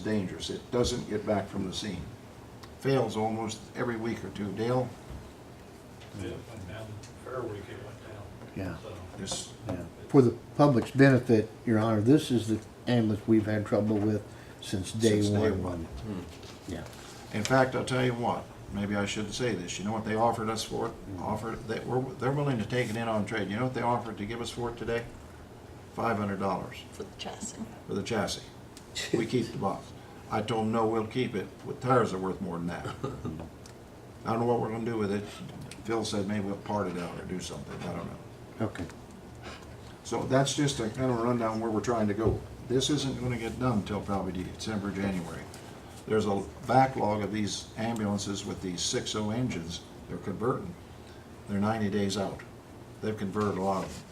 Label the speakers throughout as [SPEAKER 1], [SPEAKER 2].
[SPEAKER 1] dangerous. It doesn't get back from the scene. Fails almost every week or two. Dale,
[SPEAKER 2] It went down, fair week it went
[SPEAKER 3] Yeah,
[SPEAKER 2] down, so.
[SPEAKER 1] this,
[SPEAKER 3] yeah. For the public's benefit, Your Honor, this is the ambulance we've had trouble with since day
[SPEAKER 1] Since day
[SPEAKER 3] one.
[SPEAKER 1] one. Hmm.
[SPEAKER 3] Yeah,
[SPEAKER 1] in fact, I'll tell you what, maybe I shouldn't say this. You know what they offered us for it? Offered, they, we're, they're willing to take it in on trade. You know what they offered to give us for it today? Five hundred dollars.
[SPEAKER 4] for the chassis.
[SPEAKER 1] for the chassis. We keep the box. I told them, no, we'll keep it. The tires are worth more than that. I don't know what we're gonna do with it. Phil said maybe we'll part it out or do something. I don't know.
[SPEAKER 3] okay.
[SPEAKER 1] So that's just a kind of rundown where we're trying to go. This isn't gonna get done till probably December, January. There's a backlog of these ambulances with these six O engines. They're converting. They're ninety days out. They've converted a lot of them.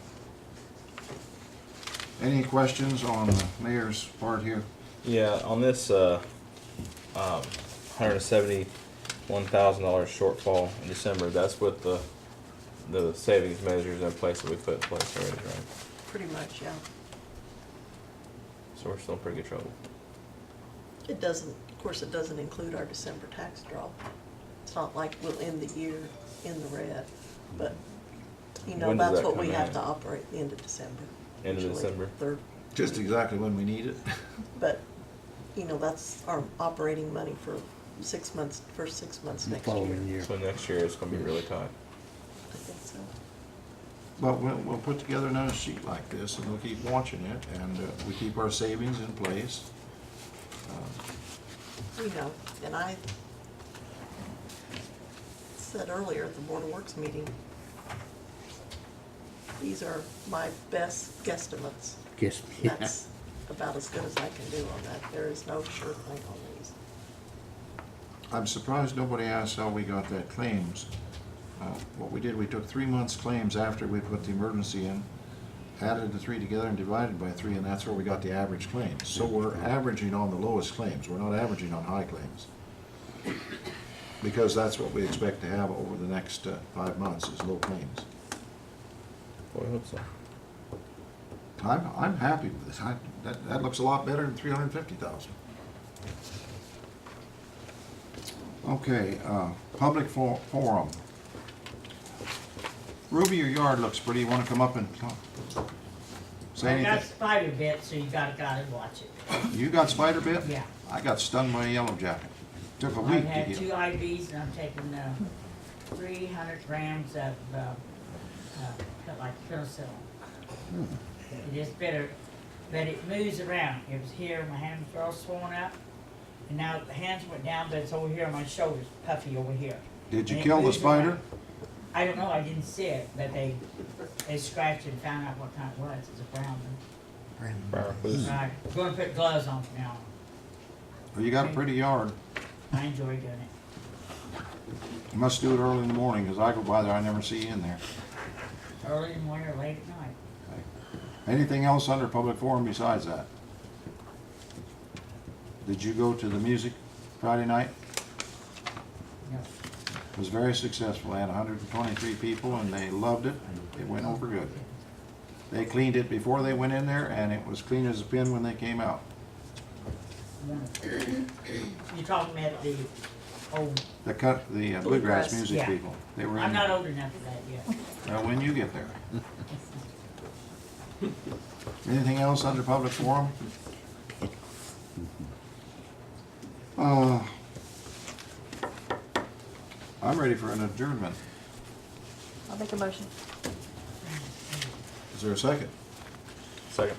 [SPEAKER 1] Any questions on the mayor's part here?
[SPEAKER 5] Yeah, on this uh, um, hundred seventy-one thousand dollars shortfall in December, that's with the the savings measures in place that we put in place already, right?
[SPEAKER 4] Pretty much, yeah.
[SPEAKER 5] So we're still in pretty good trouble.
[SPEAKER 4] It doesn't, of course, it doesn't include our December tax draw. It's not like we'll end the year in the red, but, you know,
[SPEAKER 5] When does
[SPEAKER 4] that's
[SPEAKER 5] that
[SPEAKER 4] what we
[SPEAKER 5] come
[SPEAKER 4] have
[SPEAKER 5] in?
[SPEAKER 4] to operate the end of December.
[SPEAKER 5] End of
[SPEAKER 4] usually,
[SPEAKER 5] December?
[SPEAKER 4] Third,
[SPEAKER 1] Just exactly when we need it.
[SPEAKER 4] but, you know, that's our operating money for six months, first six months
[SPEAKER 3] The
[SPEAKER 4] next year.
[SPEAKER 3] following year.
[SPEAKER 5] So next year it's gonna be really tight.
[SPEAKER 4] I think so.
[SPEAKER 1] But we'll, we'll put together another sheet like this and we'll keep watching it and uh, we keep our savings in place. Um,
[SPEAKER 4] You know, and I said earlier at the Board of Works meeting, these are my best guesstimates.
[SPEAKER 3] Yes, yeah.
[SPEAKER 4] That's about as good as I can do on that. There is no sure thing on these.
[SPEAKER 1] I'm surprised nobody asked how we got that claims. Uh, What we did, we took three months' claims after we put the emergency in, added the three together and divided by three, and that's where we got the average claims. So we're averaging on the lowest claims, we're not averaging on high claims. Because that's what we expect to have over the next uh, five months, is low claims.
[SPEAKER 5] Well, I hope so.
[SPEAKER 1] I'm, I'm happy with this, I, that, that looks a lot better than three hundred and fifty thousand. Okay, uh, public for- forum. Ruby, your yard looks pretty, you wanna come up and talk? Say
[SPEAKER 6] I got
[SPEAKER 1] anything?
[SPEAKER 6] spider bit, so you gotta, gotta watch it.
[SPEAKER 1] You got spider bit?
[SPEAKER 6] Yeah.
[SPEAKER 1] I got stung by a yellow jacket, took a
[SPEAKER 6] I've
[SPEAKER 1] week to
[SPEAKER 6] had two
[SPEAKER 1] heal.
[SPEAKER 6] IVs and I'm taking, uh, three hundred grams of, uh, uh, like penicillin.
[SPEAKER 1] Hmm.
[SPEAKER 6] It is better, but it moves around. It was here, my hands were all swollen up, and now the hands went down, but it's over here on my shoulders, puffy over here.
[SPEAKER 1] Did you
[SPEAKER 6] And it
[SPEAKER 1] kill the
[SPEAKER 6] moves
[SPEAKER 1] spider?
[SPEAKER 6] around. I don't know, I didn't see it, but they, they scratched and found out what kind it was. It's a brown one.
[SPEAKER 5] Briar Foods.
[SPEAKER 1] Hmm.
[SPEAKER 6] Right, we're gonna put gloves on from now.
[SPEAKER 1] Well, you got a pretty yard,
[SPEAKER 6] on. I enjoy doing it.
[SPEAKER 1] you must do it early in the morning, 'cause I go by there, I never see you in there.
[SPEAKER 6] Early in the morning or late at night.
[SPEAKER 1] Anything else under public forum besides that? Did you go to the music Friday night?
[SPEAKER 6] No.
[SPEAKER 1] It was very successful. They had hundred and twenty-three people and they loved it. It went over good. They cleaned it before they went in there and it was clean as a pin when they came out.
[SPEAKER 6] You talking about the old,
[SPEAKER 1] The cut, the uh, bluegrass
[SPEAKER 4] Bluegrass,
[SPEAKER 1] music
[SPEAKER 6] yeah.
[SPEAKER 1] people. They were
[SPEAKER 6] I'm
[SPEAKER 1] in
[SPEAKER 6] not
[SPEAKER 1] there.
[SPEAKER 6] old enough for that yet.
[SPEAKER 1] Well, when you get there. Anything else under public forum? Uh, I'm ready for an adjournment.
[SPEAKER 4] I'll make a motion.
[SPEAKER 1] Is there a second?
[SPEAKER 5] Second.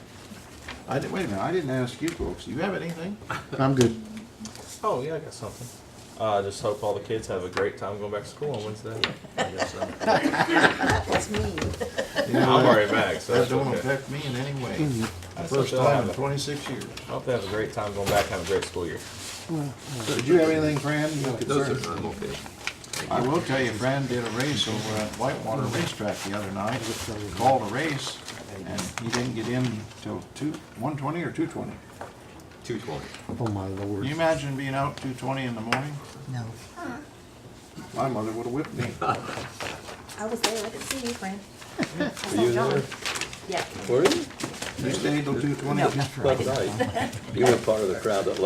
[SPEAKER 1] I didn't, wait a minute, I didn't ask you folks. Do you have anything?
[SPEAKER 3] I'm good.
[SPEAKER 5] Oh yeah, I got something. Uh, just hope all the kids have a great time going back to school on Wednesday.
[SPEAKER 1] I guess so.
[SPEAKER 4] That was me.
[SPEAKER 5] I'm already back, so
[SPEAKER 1] That
[SPEAKER 5] that's
[SPEAKER 1] don't
[SPEAKER 5] okay.
[SPEAKER 1] affect me in any way.
[SPEAKER 5] I still
[SPEAKER 1] First
[SPEAKER 5] feel
[SPEAKER 1] time in
[SPEAKER 5] like-
[SPEAKER 1] twenty-six years.
[SPEAKER 5] I hope they have a great time going back and have a great school year.
[SPEAKER 1] So Did you have anything, Fran? You have concerns?
[SPEAKER 5] I'm okay.
[SPEAKER 1] I will tell you, Fran did a race over at Whitewater Racetrack the other night, called a race, and he didn't get in till two, one twenty or two twenty.
[SPEAKER 5] Two twenty.
[SPEAKER 3] Oh, my
[SPEAKER 1] Can you
[SPEAKER 3] lord.
[SPEAKER 1] imagine being out two twenty in the morning?
[SPEAKER 7] No.
[SPEAKER 1] My mother would've whipped me.
[SPEAKER 4] I was there, I could see you, Fran.
[SPEAKER 5] Were you there?
[SPEAKER 4] Yeah.
[SPEAKER 8] Were you?
[SPEAKER 1] You stayed till two twenty?
[SPEAKER 7] No, that's right.
[SPEAKER 8] You were part of the crowd that